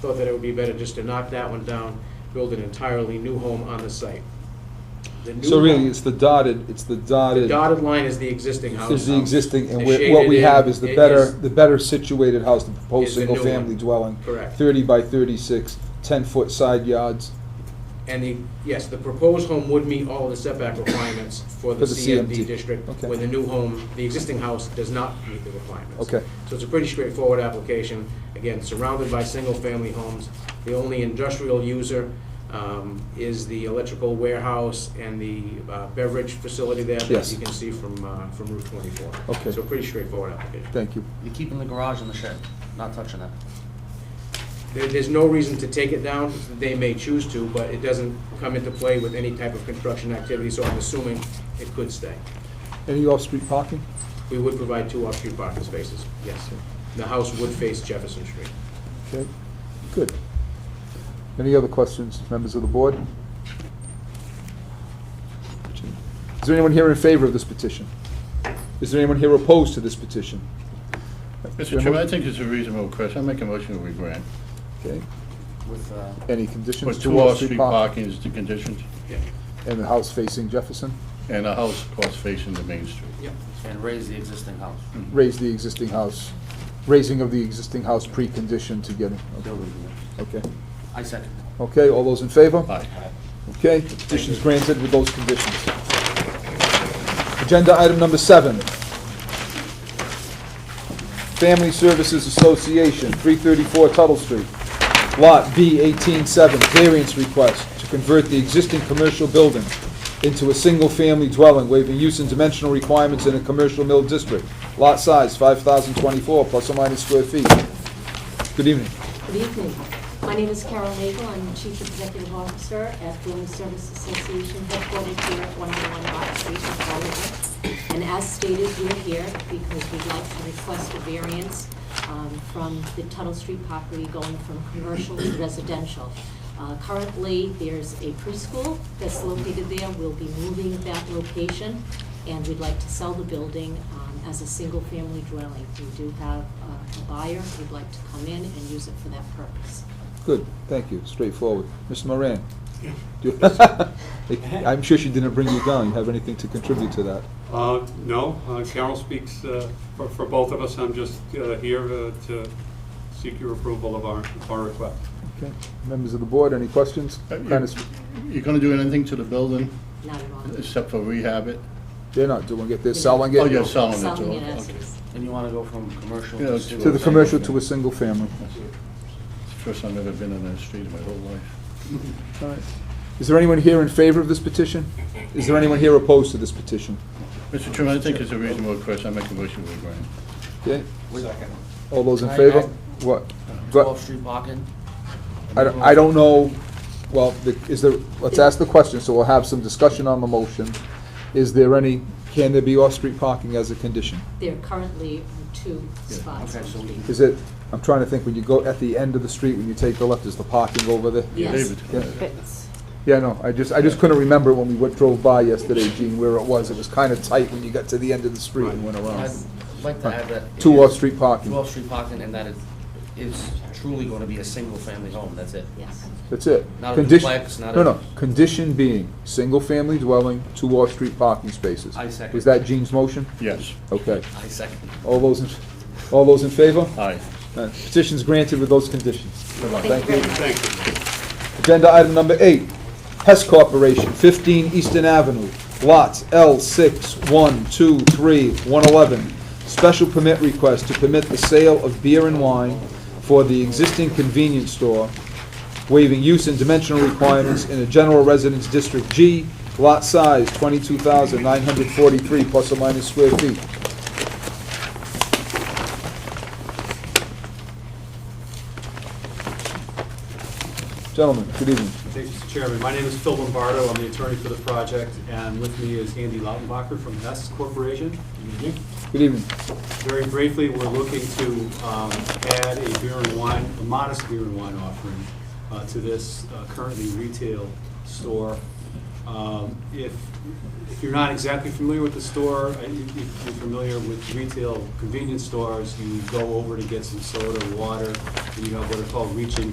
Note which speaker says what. Speaker 1: thought that it would be better just to knock that one down, build an entirely new home on the site. The new
Speaker 2: So really,
Speaker 1: home-
Speaker 2: it's the dotted, it's the
Speaker 1: The
Speaker 2: dotted,
Speaker 1: dotted line is the existing house.
Speaker 2: is the existing, and
Speaker 1: The
Speaker 2: we're- what we
Speaker 1: shaded in
Speaker 2: have is the
Speaker 1: i-
Speaker 2: better,
Speaker 1: is-
Speaker 2: the better situated house, the
Speaker 1: is
Speaker 2: proposed
Speaker 1: the new one.
Speaker 2: single-family dwelling.
Speaker 1: Correct.
Speaker 2: Thirty by thirty-six, ten-foot side yards
Speaker 1: And the, yes, the proposed home would meet all of the setback requirements for the
Speaker 2: For the CMD.
Speaker 1: CMD district,
Speaker 2: Okay.
Speaker 1: where the new home, the existing house does not meet the requirements.
Speaker 2: Okay.
Speaker 1: So it's a pretty straightforward application, again, surrounded by single-family homes. The only industrial user um, is the electrical warehouse and the uh, beverage facility there, as
Speaker 2: Yes.
Speaker 1: you can see from, uh, from Route 24.
Speaker 2: Okay.
Speaker 1: So pretty straightforward application.
Speaker 2: Thank you.
Speaker 3: You're keeping the garage in the shed, not touching it.
Speaker 1: There, there's no reason to take it down, they may choose to, but it doesn't come into play with any type of construction activity, so I'm assuming it could stay.
Speaker 2: Any off-street parking?
Speaker 1: We would provide two off-street parking spaces, yes. The house would face Jefferson Street.
Speaker 2: Okay, good. Any other questions, members of the board? Is there anyone here in favor of this petition? Is there anyone here opposed to this petition?
Speaker 4: Mr. Chairman, I think it's a reasonable question. I make a motion that we grant.
Speaker 2: Okay,
Speaker 3: With, uh,
Speaker 2: any
Speaker 4: But
Speaker 2: conditions?
Speaker 4: two off-street
Speaker 2: park-
Speaker 4: parking is the condition,
Speaker 1: Yeah,
Speaker 2: And the house facing Jefferson?
Speaker 4: and a house, of course, facing the main street.
Speaker 1: yeah.
Speaker 3: and raise the existing house,
Speaker 2: Raise the existing house, raising of the existing house preconditioned to getting,
Speaker 3: building unit.
Speaker 2: okay.
Speaker 3: I second.
Speaker 2: Okay, all those in favor?
Speaker 4: Aye.
Speaker 2: Okay, the petition's granted with those conditions. Agenda item number seven. Family Services Association, 334 Tuttle Street, Lot B187, variance request to convert the existing commercial building into a single-family dwelling, waiving use and dimensional requirements in a commercial mill district. Lot size, 5,024 plus or minus square feet. Good evening.
Speaker 5: Good evening. My name is Carol Nagel. I'm Chief Executive Officer at Building Service Association headquartered here at 101 Bott Street in Hollywood. And as stated, we're here because we'd like to request a variance um, from the Tuttle Street property going from commercial to residential. Uh, Currently, there's a preschool that's located there. We'll be moving that location, and we'd like to sell the building um, as a single-family dwelling. We do have uh, a buyer who'd like to come in and use it for that purpose.
Speaker 2: Good, thank you, straightforward. Ms. Moran? Do- I'm sure she didn't bring you down, you have anything to contribute to that?
Speaker 6: Uh, No, uh, Carol speaks uh, for for both of us. I'm just uh, here uh, to seek your approval of our of our request.
Speaker 2: Okay, members of the board, any questions?
Speaker 4: Uh,
Speaker 2: Kind of-
Speaker 4: you- You're gonna do anything to the building
Speaker 5: Not at all.
Speaker 4: except for rehab it?
Speaker 2: They're not doing it, they're selling it.
Speaker 4: Oh, you're selling it
Speaker 5: Selling it
Speaker 4: to,
Speaker 5: as
Speaker 4: okay.
Speaker 5: is.
Speaker 3: And you wanna go from commercial
Speaker 4: Yeah,
Speaker 3: to
Speaker 4: to-
Speaker 2: To the
Speaker 3: single-family?
Speaker 2: commercial to a single family.
Speaker 4: First time I've ever been on that street in my whole life.
Speaker 2: All right. Is there anyone here in favor of this petition? Is there anyone here opposed to this petition?
Speaker 4: Mr. Chairman, I think it's a reasonable question. I make a motion that we grant.
Speaker 2: Okay,
Speaker 3: Second.
Speaker 2: all those in
Speaker 3: I-
Speaker 2: favor?
Speaker 3: I-
Speaker 2: What? Go-
Speaker 3: Twelve street parking?
Speaker 2: I don't, I don't know, well, the- is there, let's ask the question, so we'll have some discussion on the motion. Is there any, can there be off-street parking as a condition?
Speaker 5: There currently are two
Speaker 4: Yeah,
Speaker 5: spots.
Speaker 3: okay, so we-
Speaker 5: on the-
Speaker 2: Is it, I'm trying to think, when you go at the end of the street, when you take the left, is the parking over there?
Speaker 5: Yes.
Speaker 4: David.
Speaker 2: Yeah. Yeah, no, I just, I just couldn't remember when we went- drove by yesterday, Gene, where it was. It was kind of tight when you got to the end of the street and went
Speaker 3: I'd
Speaker 2: around.
Speaker 3: like to add that. it
Speaker 2: Two
Speaker 3: is-
Speaker 2: off-street parking.
Speaker 3: Two off-street parking, and that it is truly gonna be a single-family home, that's it.
Speaker 5: Yes.
Speaker 2: That's it.
Speaker 3: Not a
Speaker 2: Condition-
Speaker 3: duplex, not
Speaker 2: No,
Speaker 3: a-
Speaker 2: no, condition being, single-family dwelling, two off-street parking spaces.
Speaker 3: I second.
Speaker 2: Was that Gene's motion?
Speaker 4: Yes,
Speaker 2: Okay.
Speaker 3: I second.
Speaker 2: All those, in all those in favor?
Speaker 4: aye.
Speaker 2: Uh, Petition's granted with those conditions.
Speaker 4: Good luck.
Speaker 5: Thank you very much.
Speaker 6: Thank you.
Speaker 2: Agenda item number eight, Hess Corporation, 15 Eastern Avenue, lots L6, 1, 2, 3, 111. Special permit request to permit the sale of beer and wine for the existing convenience store, waiving use and dimensional requirements in a general residence district G, lot size 22,943 plus or minus square feet. Gentlemen, good evening.
Speaker 7: Thank you, Mr. Chairman. My name is Phil Lombardo. I'm the attorney for the project, and with me is Andy Lautenbacher from Hess Corporation. Good evening.
Speaker 2: Good evening.
Speaker 7: Very briefly, we're looking to um, add a beer and wine, a modest beer and wine offering uh, to this uh, currently retail store. Um, If, if you're not exactly familiar with the store, uh, you- you- you're familiar with retail convenience stores, you go over to get some soda, water, and you have what are called reach-in